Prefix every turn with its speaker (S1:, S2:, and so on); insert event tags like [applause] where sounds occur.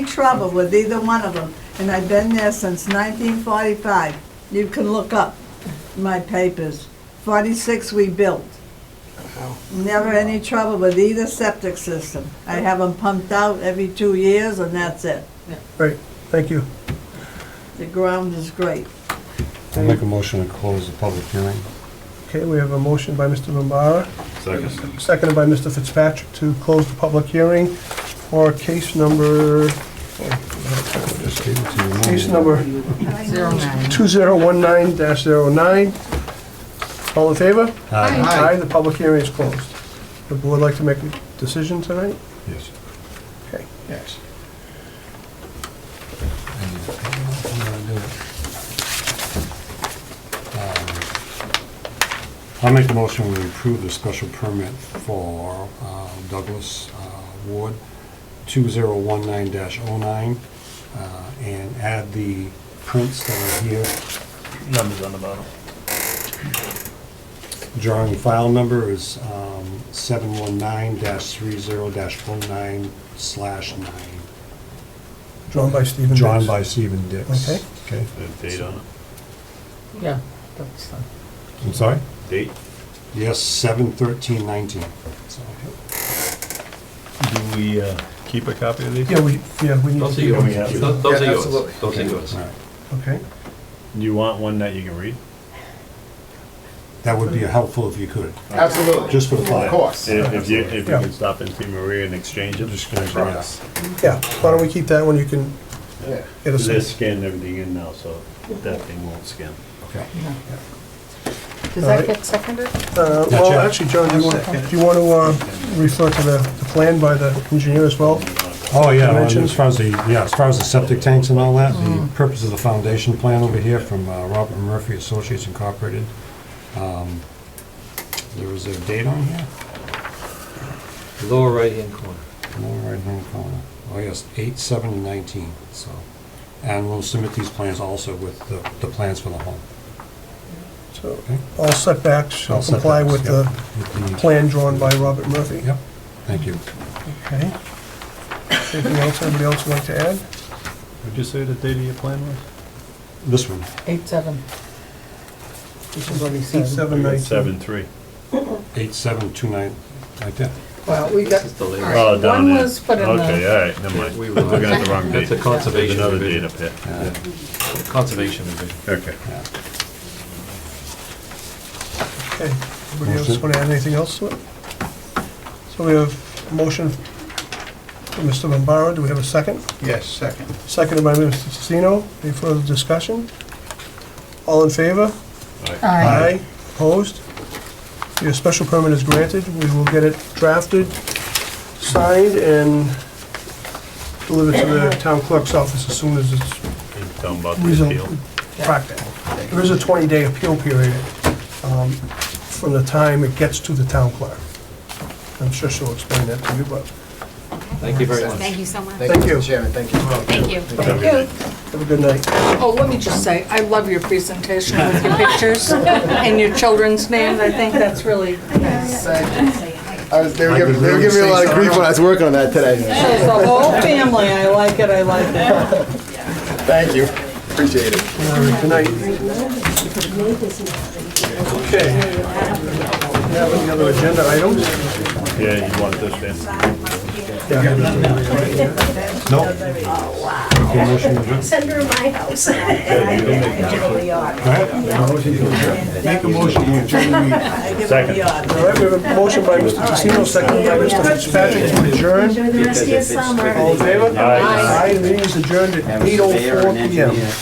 S1: trouble with either one of them, and I've been there since 1945. You can look up my papers. 46 we built. Never any trouble with either septic system. I have them pumped out every two years, and that's it.
S2: Great, thank you.
S1: The ground is great.
S3: I'll make a motion to close the public hearing.
S2: Okay, we have a motion by Mr. Bombara,
S3: Second.
S2: seconded by Mr. Fitzpatrick to close the public hearing for case number,
S3: Just gave it to you.
S2: case number
S4: Zero nine.
S2: 2019-09. All in favor?
S3: Aye.
S2: Aye, the public hearing is closed. The board like to make a decision tonight?
S3: Yes.
S2: Okay, yes.
S3: I'm gonna do it. Um, I'll make the motion we approve the special permit for uh, Douglas uh, Ward, 2019-09, uh, and add the prints that are here,
S5: numbers on the bottom.
S3: drawing file number is um, 719-30-09/9.
S2: Drawn by Stephen Dix.
S3: Drawn by Stephen Dix.
S2: Okay.
S3: Okay,
S6: Date on it?
S4: Yeah, that's fine.
S3: I'm sorry?
S6: Date?
S3: Yes, seven thirteen nineteen.
S5: Do we uh, keep a copy of these?
S2: Yeah, we, yeah, we need to.
S7: Those are
S2: do
S7: yours.
S2: that.
S5: Yeah.
S7: Those those are
S2: Yeah,
S7: yours.
S2: absolutely.
S7: Those are yours.
S2: Okay,
S5: Do you want one that you can read?
S3: That would be helpful if you could,
S8: Absolutely,
S3: just for the
S8: of
S3: file.
S8: course.
S5: If if you, if you
S2: Yeah.
S5: can stop and see Maria and exchange them.
S3: Just gonna grab it.
S2: yeah, why don't we keep that one, you can
S8: Yeah.
S2: get us.
S5: They're scanning everything in now, so that thing won't scan.
S3: Okay.
S4: Does
S2: Alright.
S4: that get seconded?
S2: Uh,
S3: Yeah,
S2: Well,
S3: John.
S2: actually, John, do you want, do you want to uh, refer to the the plan by the engineer as well?
S3: Oh, yeah, well,
S2: Dimensions?
S3: as far as the, yeah, as far as the septic tanks and all that, the purpose of the foundation plan over here from uh, Robert Murphy Associates Incorporated. um, There was a date on here?
S7: Lower right-hand corner.
S3: No, right hand corner. Oh, yes, eight seven nineteen, so. And we'll submit these plans also with the, the plans for the home.
S2: So
S3: Okay.
S2: all setbacks shall
S3: All
S2: comply with
S3: setbacks, yeah,
S2: the
S3: with the-
S2: plan drawn by Robert Murphy.
S3: Yep, thank you.
S2: Okay. Anything else, anybody else would like to add?
S5: Would you say the date of your plan was?
S3: This one.
S4: Eight, seven. Which is what he
S2: Eight,
S4: said.
S2: seven, nineteen.
S5: Seven, three.
S3: Eight, seven, two, nine, like that.
S4: Well, we got,
S7: This is the
S4: All right.
S7: latest.
S5: Oh, down
S4: One
S5: there.
S4: was put in the-
S5: Okay, all right, never mind.
S7: We
S5: I'm
S7: were-
S5: looking at the wrong date.
S7: That's a conservation
S5: There's another date up
S7: revision.
S5: here.
S3: Yeah.
S7: Conservation division.
S5: Okay.
S3: yeah.
S2: Okay, anybody else
S3: Motion.
S2: want to add anything else to it? So we have a motion from Mr. Bombara, do we have a second?
S8: Yes, second.
S2: Seconded by Mr. Testino, any further discussion? All in favor?
S4: Aye.
S2: Aye, opposed? Your special permit is granted, we will get it drafted, signed, and delivered to the town clerk's office as soon as it's
S5: You can Tell them about the appeal.
S2: reasonable. Practical. There is a 20-day appeal period um, from the time it gets to the town clerk. I'm sure she'll explain that to you, but
S7: Thank you very much.
S9: Thank you so much.
S2: Thank
S8: Thank you,
S2: you.
S8: Mr. Chairman, thank you.
S9: Thank you.
S4: Thank you.
S2: have a good night.
S4: Oh, let me just say, I love your presentation with your
S7: [laughs]
S4: pictures and your children's names. I think that's really nice.
S8: I was, they were
S3: I
S8: giving,
S3: could
S8: they were
S3: really
S8: giving me a lot of
S3: say
S8: grief when I was working on that today.
S4: It's the whole family. I like it, I like it.
S8: Thank you, appreciate it.
S2: Good night. Okay. Now, any other agenda items?
S5: Yeah, you want this then?
S3: No? Okay, motion adjourned.
S9: Send her my house.
S3: Make a motion to adjourn.
S1: I give them
S5: Second.
S1: the odd.
S2: All right, we have a motion by Mr. Pacino, seconded by Mr. Fitzpatrick to adjourn.
S9: Enjoy the rest of your summer.
S2: All in favor?
S5: Aye.
S2: Aye, the meeting is adjourned at
S6: Have a surveyor
S2: 8:04
S6: and
S2: PM.
S6: engineer.